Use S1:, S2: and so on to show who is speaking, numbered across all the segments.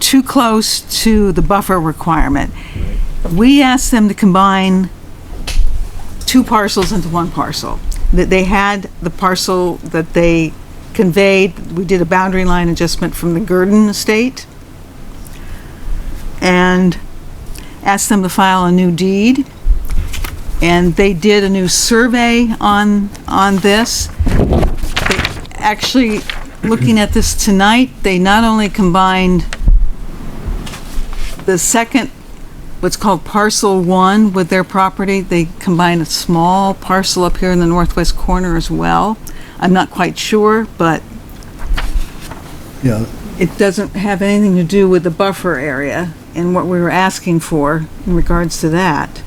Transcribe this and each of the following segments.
S1: too close to the buffer requirement. We asked them to combine two parcels into one parcel. That they had the parcel that they conveyed, we did a boundary line adjustment from the Gurdon estate and asked them to file a new deed. And they did a new survey on, on this. They- Actually, looking at this tonight, they not only combined the second, what's called parcel one with their property, they combined a small parcel up here in the northwest corner as well. I'm not quite sure, but
S2: Yeah,
S1: it doesn't have anything to do with the buffer area and what we were asking for in regards to that.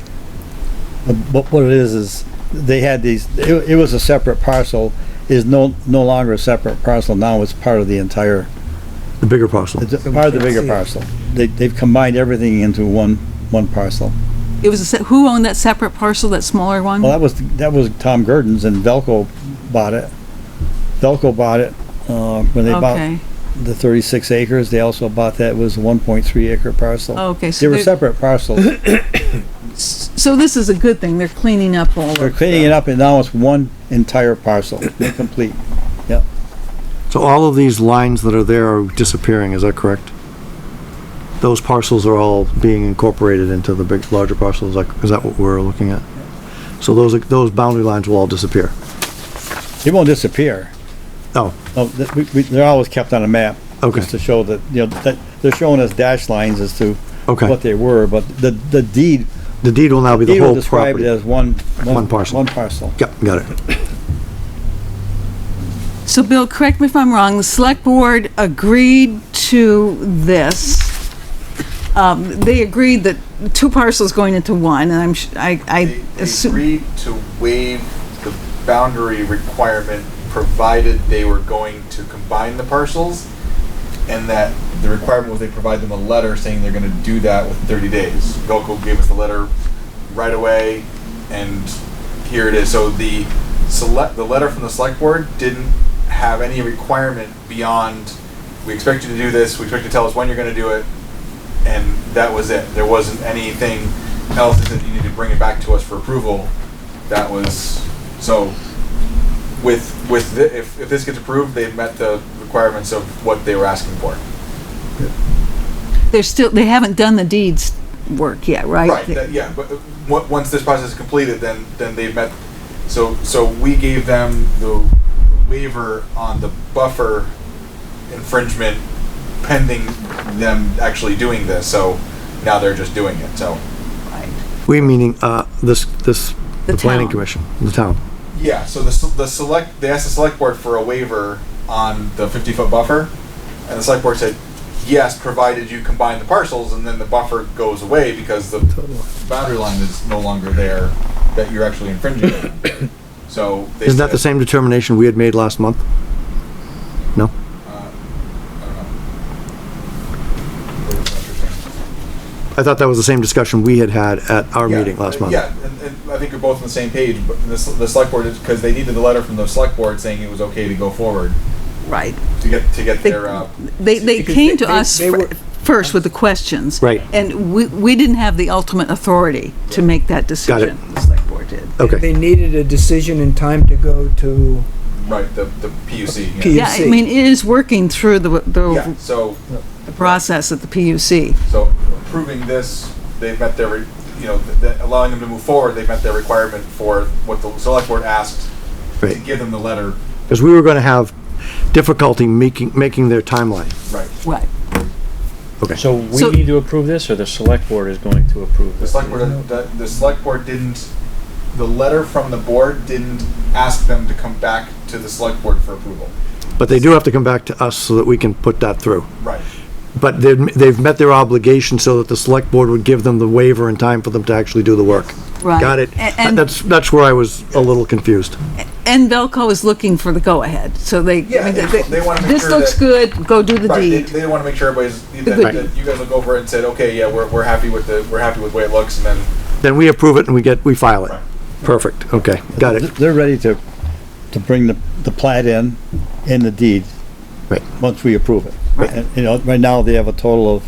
S2: but what it is, is they had these, it, it was a separate parcel, is no, no longer a separate parcel, now it's part of the entire,
S3: The bigger parcel.
S2: it's a part of the bigger parcel. They, they've combined everything into one, one parcel.
S1: It was, a se- who owned that separate parcel, that smaller one?
S2: Well, that was, that was Tom Gurdon's and Velco bought it. Velco bought it, uh, when they bought
S1: Okay,
S2: the thirty-six acres, they also bought that, it was a one point three acre parcel.
S1: Oh, okay.
S2: They
S1: So
S2: were
S1: they're-
S2: separate parcels.
S1: So this is a good thing, they're cleaning up all
S2: They're
S1: of
S2: cleaning it up and now it's one entire parcel, complete.
S3: So all of these lines that are there are disappearing, is that correct? Those parcels are all being incorporated into the big, larger parcels, like, is that what we're looking at? So those, are- those boundary lines will all disappear?
S2: It won't disappear.
S3: Oh,
S2: No, th- we- we- They're always kept on a map.
S3: Okay.
S2: Just to show that, you know, that, they're showing us dash lines as to
S3: Okay.
S2: what they were, but the, the deed,
S3: the deed will now be the
S2: deed will
S3: whole
S2: describe it
S3: property?
S2: as one.
S3: One parcel.
S2: One parcel.
S3: Yep, got it.
S1: it. So Bill, correct me if I'm wrong, the select board agreed to this. Um, they agreed that two parcels going into one, and I'm, sh- I,
S4: They
S1: I
S4: they
S1: assume,
S4: agreed to waive the boundary requirement provided they were going to combine the parcels. And that the requirement was they provide them a letter saying they're gonna do that with thirty days. Velco gave us the letter right away and here it is. So the select, the letter from the select board didn't have any requirement beyond, we expect you to do this, we expect you to tell us when you're gonna do it, and that was it. There wasn't anything else that said you need to bring it back to us for approval. That was, so with, with, thi- if, if this gets approved, they've met the requirements of what they were asking for.
S1: they're still, they haven't done the deeds work yet, right?
S4: Right, that- yeah, but, uh, on- once this process is completed, then, then they've met, so, so we gave them the waiver on the buffer infringement pending them actually doing this, so now they're just doing it, so.
S3: We meaning, uh, this, this,
S1: The
S3: the planning
S1: town.
S3: commission, the town.
S4: Yeah, so the, s- the select, they asked the select board for a waiver on the fifty foot buffer, and the select board said, yes, provided you combine the parcels, and then the buffer goes away because the boundary line is no longer there that you're actually infringing on. So. they
S3: Isn't that the
S4: said-
S3: same determination we had made last month? No? I thought that was the same discussion we had had at our
S4: Yeah,
S3: meeting last
S4: uh,
S3: month.
S4: Yeah, and, and I think you're both on the same page, but the, s- the select board is, because they needed the letter from the select board saying it was okay to go forward,
S1: Right.
S4: to get, to get
S1: They-
S4: their, uh.
S1: They, they
S4: because
S1: came to
S4: they-
S1: us
S4: they
S1: fir-
S4: were-
S1: first with the questions.
S3: Right.
S1: And we, we didn't have the ultimate authority to make that decision. The select board did.
S3: Okay,
S5: They needed a decision in time to go to,
S4: Right, the, the PUC, yeah.
S5: P-
S1: Yeah, I
S5: PUC.
S1: mean, it is working through the,
S4: Yeah,
S1: the
S4: so,
S1: the process at the PUC.
S4: so approving this, they've met their, re- you know, th- th- allowing them to move forward, they've met their requirement for what the select board asked to
S3: great.
S4: give them the letter,
S3: Because we were gonna have difficulty making, making their timeline.
S4: right.
S1: Right.
S6: So
S1: So-
S6: we need to approve this, or the select board is going to approve
S4: The
S6: this?
S4: select board, the, the select board didn't, the letter from the board didn't ask them to come back to the select board for approval.
S3: But they do have to come back to us so that we can put that through.
S4: Right.
S3: But they've, they've met their obligation so that the select board would give them the waiver in time for them to actually do the work.
S1: Right.
S3: Got it?
S1: A- and-
S3: That's, that's where I was a little confused.
S1: And Velco is looking for the go-ahead, so they.
S4: Yeah,
S1: I mean,
S4: they- they wanna make
S1: This
S4: sure
S1: looks
S4: that-
S1: good, go do the
S4: Right, they,
S1: deed.
S4: they wanna make sure everybody's, that,
S1: good-
S4: that you guys will go over it and said, okay, yeah, we're, we're happy with the, we're happy with the way it looks, and then
S3: Then we approve it and we get, we file it.
S4: Right.
S3: Perfect, okay, got it.
S2: They're ready to, to bring the, the plat in, in the deed.
S3: Right.
S2: Once we approve it. And, you know, right now they have a total of